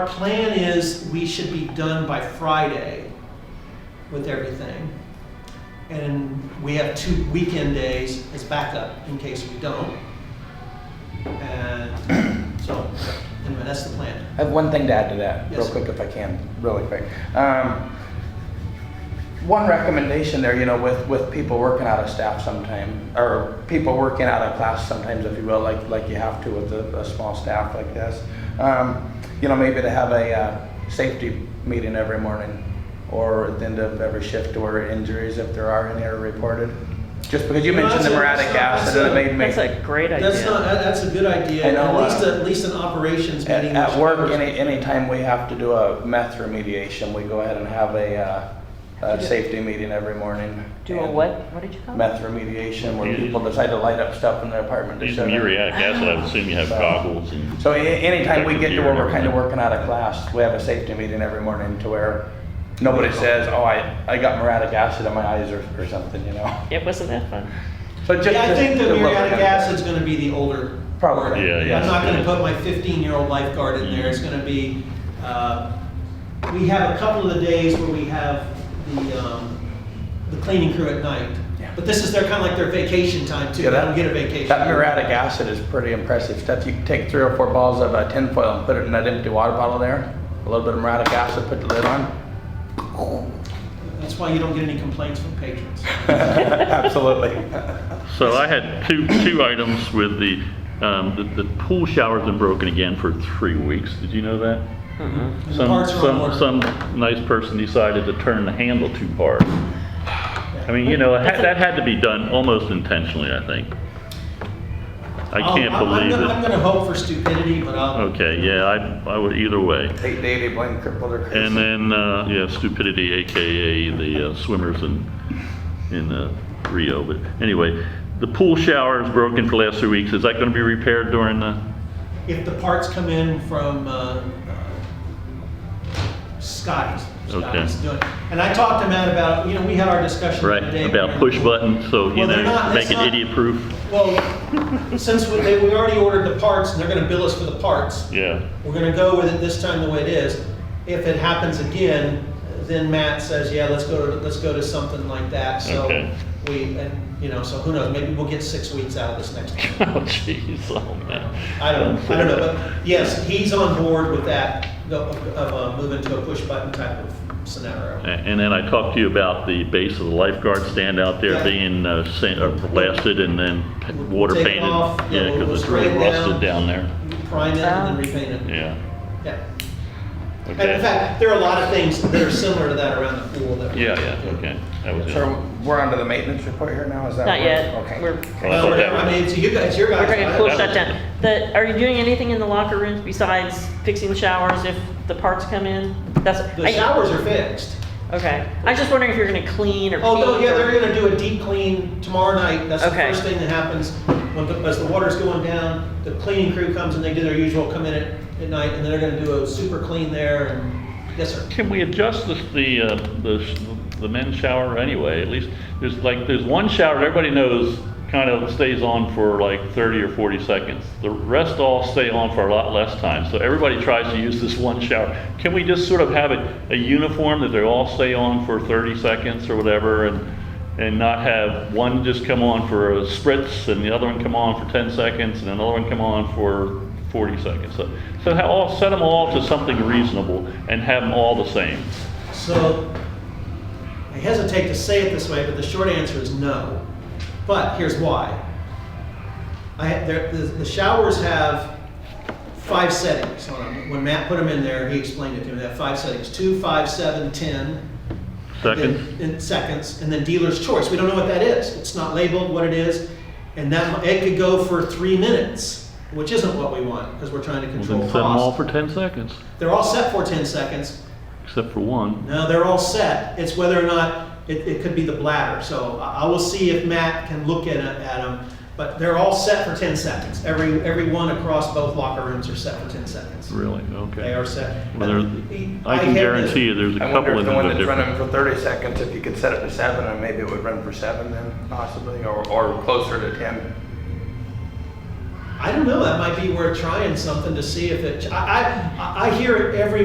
Our plan is we should be done by Friday with everything. And we have two weekend days as backup in case we don't. And so, anyway, that's the plan. I have one thing to add to that, real Yes. quick if I can, really quick. Um, one recommendation there, you know, with, with people working out of staff sometime, or people working out of class sometimes, if you will, like, like you have to with a, a small staff like this. Um, you know, maybe to have a, uh, safety meeting every morning or at the end of every shift or injuries, if there are any, are reported. Just because you No, mentioned the that's a- muriatic that's acid, a- it made me. That's a great idea. That's not, that- that's a good idea. I know, At least, uh, a- at least an operations At, meeting. at which work, covers- any, anytime we have to do a meth remediation, we go ahead and have a, uh, a safety meeting every morning. Do a And what? What did you call it? Meth remediation, where Yeah. people decide to light up stuff in their apartment to These shut it. muriatic acid, I would assume you have goggles and. So a- anytime we get to where Protective gear we're and kind of everything. working out of class, we have a safety meeting every morning to where nobody says, oh, I, I got muriatic acid in my eyes or, or something, you know? It wasn't that fun. But just Yeah, I to- think the to look at muriatic it. acid's gonna be the older. Probably. word. Yeah, yeah. I'm not gonna put my fifteen-year-old lifeguard in there, it's gonna be, uh, we have a couple of the days where we have the, um, the cleaning crew at night. Yeah. But this is their, kinda like their vacation time too, they Yeah, that- don't get a vacation. That muriatic acid is pretty impressive stuff. You can take three or four balls of uh, tinfoil and put it in that empty water bottle there. A little bit of muriatic acid, put the lid on. That's why you don't get any complaints from patrons. Absolutely. So I had two, two items with the, um, the, the pool shower's been broken again for three weeks. Did you know that? Mm-hmm. And the Some, parts are on some, order. some nice person decided to turn the handle too hard. I mean, you know, it had- that had to be done almost intentionally, I think. I Oh, I'll- can't I'm- I'm believe gonna- I'm it. Oh, gonna hope for stupidity, but I'll, Okay, yeah, I, I would, either way. Take Davey, blame crippled or crazy. And then, uh, yeah, stupidity, AKA the uh, swimmers in, in uh, Rio. But anyway, the pool shower is broken for the last three weeks. Is that going to be repaired during the, if the parts come in from uh, uh, Scotty's, Okay. Scotty's doing. it. And I talked to Matt about, you know, we had our discussion right, today. about push button, so, you Well, they're know, not- make it's it not- idiot proof? Well, since we, they- we already ordered the parts and they're gonna bill us for the parts, Yeah, we're gonna go with it this time the way it is. If it happens again, then Matt says, yeah, let's go to, let's go to something like that, so Okay. we, and, you know, so who knows, maybe we'll get six weeks out of this next one. oh jeez, oh man. I don't, I don't know, but yes, he's on board with that, the- of, of uh, moving to a push button type of A- scenario. And then I talked to you about the base of the lifeguard stand out Yeah. there being uh, sand- uh, blasted and then p- We'll water take it painted. off, yeah, Yeah, we'll- we'll because it's really spray it down. rusted down there. Prime it Oh. and then repaint it. Yeah, Yeah. And okay. in fact, there are a lot of things that are similar to that around the pool that. we're Yeah, gonna yeah, do. okay. That was it. So we're on to the maintenance report here now, is that? Not where- yet. Okay. We're, Well, I thought No, that I was- mean, it's you guys, it's your we're guys. uh, going to cool That shut was- down. The, are you doing anything in the locker rooms besides fixing the showers if the parts come in? That's, The I, showers are fixed. okay. I was just wondering if you're going to clean or. Oh, no, paint yeah, or- they're gonna do a deep clean tomorrow night. That's the Okay. first thing that happens. When, the- as the water's going down, the cleaning crew comes and they do their usual come in at, at night and they're gonna do a super clean there and, yes, sir. Can we adjust this, the, uh, the, sh- the men's shower anyway? At least, there's like, there's one shower that everybody knows kind of stays on for like thirty or forty seconds. The rest all stay on for a lot less time, so everybody tries to use this one shower. Can we just sort of have a, a uniform that they all stay on for thirty seconds or whatever and, and not have one just come on for a spritz and the other one come on for ten seconds and another one come on for 40 seconds. So, so ha- all, set them all to something reasonable and have them all the same. So, I hesitate to say it this way, but the short answer is no. But here's why. I, there, the, the showers have five settings on them. When Matt put them in there, he explained it to me. They have five settings: two, five, seven, ten. Second, In seconds, and then dealer's choice. We don't know what that is. It's not labeled what it is, and that mi- it could go for three minutes, which isn't what we want because we're trying to well, then control set them all cost. for 10 seconds, They're all set for ten seconds. except for one. No, they're all set. It's whether or not, it, it could be the bladder. So I I will see if Matt can look at, it- at them. But they're all set for 10 seconds. Every, every one across both locker rooms are set for 10 seconds. Really? Okay. They are set. Well, there- I had this- can guarantee you there's a I wonder couple if of the them one that are that's different. running for thirty seconds, if you could set it to seven and maybe it would run for seven then possibly, or, or closer to ten. I don't know, that might be worth trying something to see if it, I, I, I hear it every